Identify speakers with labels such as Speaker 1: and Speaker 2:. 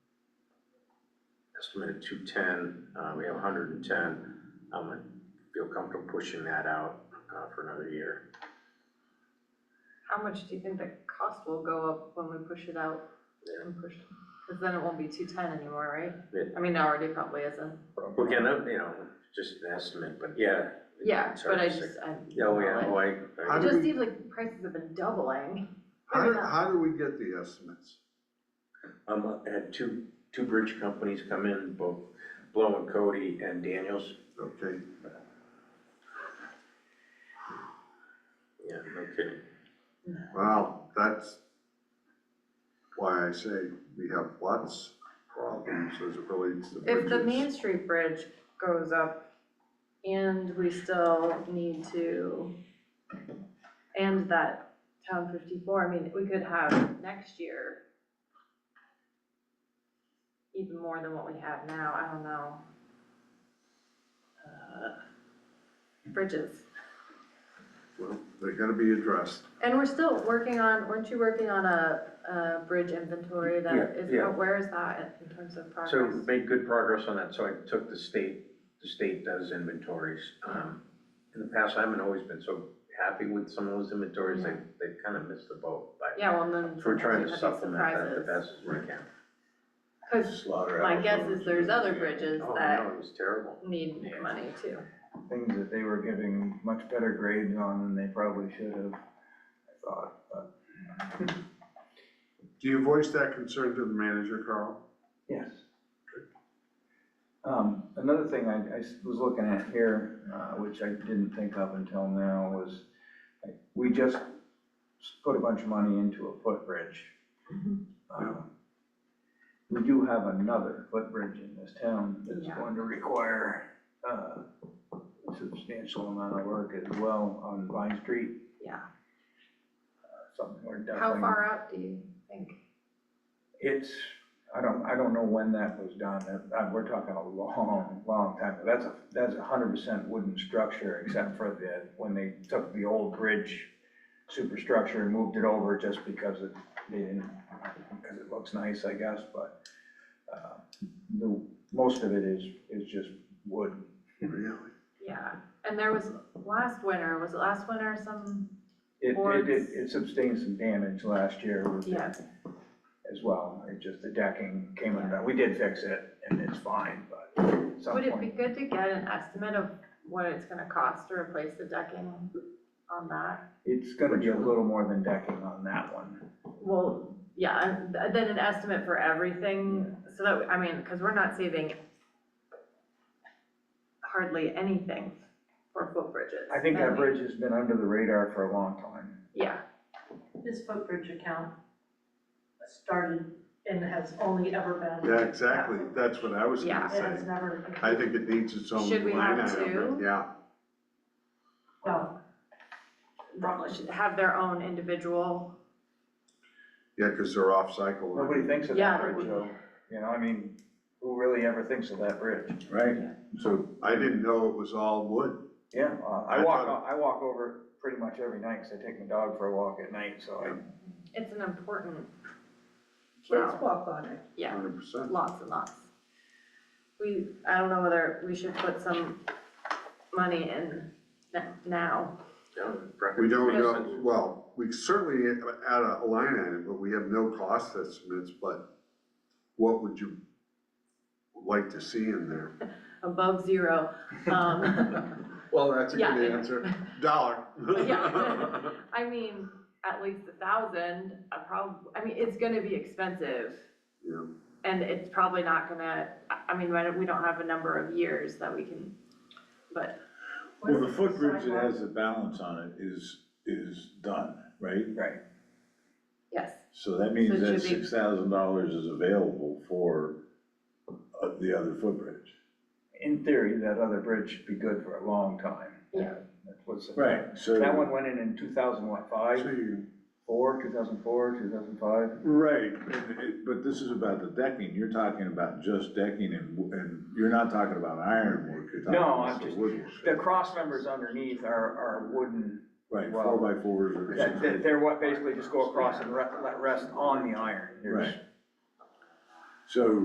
Speaker 1: estimated two ten, uh, we have hundred and ten. Um, I feel comfortable pushing that out, uh, for another year.
Speaker 2: How much do you think the cost will go up when we push it out and push? Cause then it won't be two ten anymore, right?
Speaker 1: Yeah.
Speaker 2: I mean, already probably isn't.
Speaker 1: We can, uh, you know, just an estimate, but yeah.
Speaker 2: Yeah,
Speaker 1: it's hard
Speaker 2: but I
Speaker 1: to say.
Speaker 2: just, I.
Speaker 1: Oh, yeah, oh, I, I-
Speaker 3: How
Speaker 2: It
Speaker 3: do
Speaker 2: just
Speaker 3: we-
Speaker 2: seems like prices have been doubling.
Speaker 3: How do,
Speaker 2: Fair enough.
Speaker 3: how do we get the estimates?
Speaker 1: um, I had two, two bridge companies come in, both Blow and Cody and Daniels.
Speaker 3: Okay,
Speaker 1: Yeah, no kidding.
Speaker 3: well, that's why I say we have lots of problems as it relates to
Speaker 2: If the Main
Speaker 3: bridges.
Speaker 2: Street Bridge goes up and we still need to, and that Town fifty-four, I mean, we could have next year even more than what we have now, I don't know. Uh, Bridges.
Speaker 3: Well, they're gonna be addressed.
Speaker 2: And we're still working on, weren't you working on a, a bridge inventory that
Speaker 1: Yeah,
Speaker 2: is,
Speaker 1: yeah.
Speaker 2: where is that in terms of progress?
Speaker 1: So we made good progress on that, so I took the state, the state does inventories. Um, In the past, I haven't always been so happy with some of those inventories, they, they kind of missed the boat. but
Speaker 2: Yeah, well, then.
Speaker 1: We're trying to
Speaker 2: sometimes you have these
Speaker 1: supplement that the
Speaker 2: surprises.
Speaker 1: best as we can.
Speaker 2: Cause
Speaker 3: Slaughter.
Speaker 2: my guess is there's other bridges
Speaker 1: Oh,
Speaker 2: that
Speaker 1: no, it was terrible.
Speaker 2: need
Speaker 1: Yeah.
Speaker 2: money too.
Speaker 4: things that they were giving much better grades on than they probably should have, I thought, but.
Speaker 3: Do you voice that concern to the manager, Carl?
Speaker 4: Yes. Um, another thing I, I s- was looking at here, uh, which I didn't think of until now, was like, we just s- put a bunch of money into a footbridge.
Speaker 2: Mhm.
Speaker 4: Um, We do have another footbridge in this town that's
Speaker 2: Yeah.
Speaker 4: going to require, uh, a substantial amount of work as well on Vine Street.
Speaker 2: Yeah.
Speaker 4: Something we're
Speaker 2: How
Speaker 4: definitely.
Speaker 2: far out do you think?
Speaker 4: It's, I don't, I don't know when that was done, That- that- we're talking a long, long time, ago. that's a, that's a hundred percent wooden structure, except for the, when they took the old bridge superstructure and moved it over just because it, they didn't, because it looks nice, I guess, but, uh, the, most of it is, is just wood.
Speaker 3: Really?
Speaker 2: Yeah, and there was, last winter, was it last winter some,
Speaker 4: It, it, it-
Speaker 2: Boards.
Speaker 4: it sustained some damage last year with the-
Speaker 2: yeah,
Speaker 4: as well, it just, the decking came undone, we did fix it, and it's fine, but at some
Speaker 2: would it
Speaker 4: point-
Speaker 2: be good to get an estimate of what it's gonna cost to replace the decking on that?
Speaker 4: It's gonna be a little more than decking on that one.
Speaker 2: Well, yeah, and th- then an estimate for everything, so that, I mean, cause we're not saving hardly anything for footbridges.
Speaker 4: I think that
Speaker 2: and-
Speaker 4: bridge has been under the radar for a long time.
Speaker 2: Yeah,
Speaker 5: This footbridge account started and has only ever been.
Speaker 3: Yeah, exactly, that's what I was
Speaker 2: Yeah.
Speaker 3: gonna
Speaker 5: It has
Speaker 3: say.
Speaker 5: never.
Speaker 3: I think it needs its own
Speaker 2: Should we
Speaker 3: line
Speaker 2: have
Speaker 3: item,
Speaker 2: two?
Speaker 3: yeah.
Speaker 5: Well,
Speaker 2: probably should have their own individual,
Speaker 3: Yeah, because they're off-cycle.
Speaker 4: Nobody thinks of
Speaker 2: Yeah.
Speaker 4: that bridge though. You know, I mean, who really ever thinks of that bridge?
Speaker 1: Right.
Speaker 3: So I didn't know it was all wood.
Speaker 4: Yeah, uh, I
Speaker 3: I
Speaker 4: walk,
Speaker 3: thought-
Speaker 4: I walk over pretty much every night, cause I take my dog for a walk at night, so I,
Speaker 2: it's an important,
Speaker 5: kids walk on it.
Speaker 2: yeah,
Speaker 3: Hundred percent.
Speaker 2: lots and lots. We, I don't know whether we should put some money in n- now,
Speaker 1: Yeah,
Speaker 3: We don't know,
Speaker 1: preference.
Speaker 3: well, we certainly add a line item, but we have no cost estimates, but what would you like to see in there?
Speaker 2: above zero, um,
Speaker 3: Well, that's
Speaker 2: a good Yeah. answer.
Speaker 3: Dollar.
Speaker 2: Yeah. I mean, at least a thousand, I prob, I mean, it's gonna be expensive.
Speaker 3: Yeah.
Speaker 2: And it's probably not gonna, I- I mean, we don't have a number of years that we can, but,
Speaker 6: Well, the footbridge that has the balance on it is, is done, right?
Speaker 4: right.
Speaker 2: yes,
Speaker 6: So that
Speaker 2: So
Speaker 6: means
Speaker 2: it
Speaker 6: that
Speaker 2: should be-
Speaker 6: six thousand dollars is available for uh, the other footbridge.
Speaker 4: In theory, that other bridge should be good for a long time.
Speaker 2: Yeah.
Speaker 4: That was,
Speaker 6: So,
Speaker 4: that one went in in two thousand, what,
Speaker 3: So
Speaker 4: five,
Speaker 3: you-
Speaker 4: four, two thousand four, two thousand five?
Speaker 6: right, and it- but this is about the decking, you're talking about just decking and, w- and you're not talking about ironwork, you're talking
Speaker 4: No,
Speaker 6: about
Speaker 4: I'm
Speaker 6: the
Speaker 4: just-
Speaker 6: woodwork.
Speaker 4: The cross members underneath are, are wooden,
Speaker 6: Right, four
Speaker 4: well,
Speaker 6: by fours or
Speaker 4: that-
Speaker 6: something.
Speaker 4: that- they're what basically just go across and re- let rest on the iron. There's-
Speaker 6: Right. So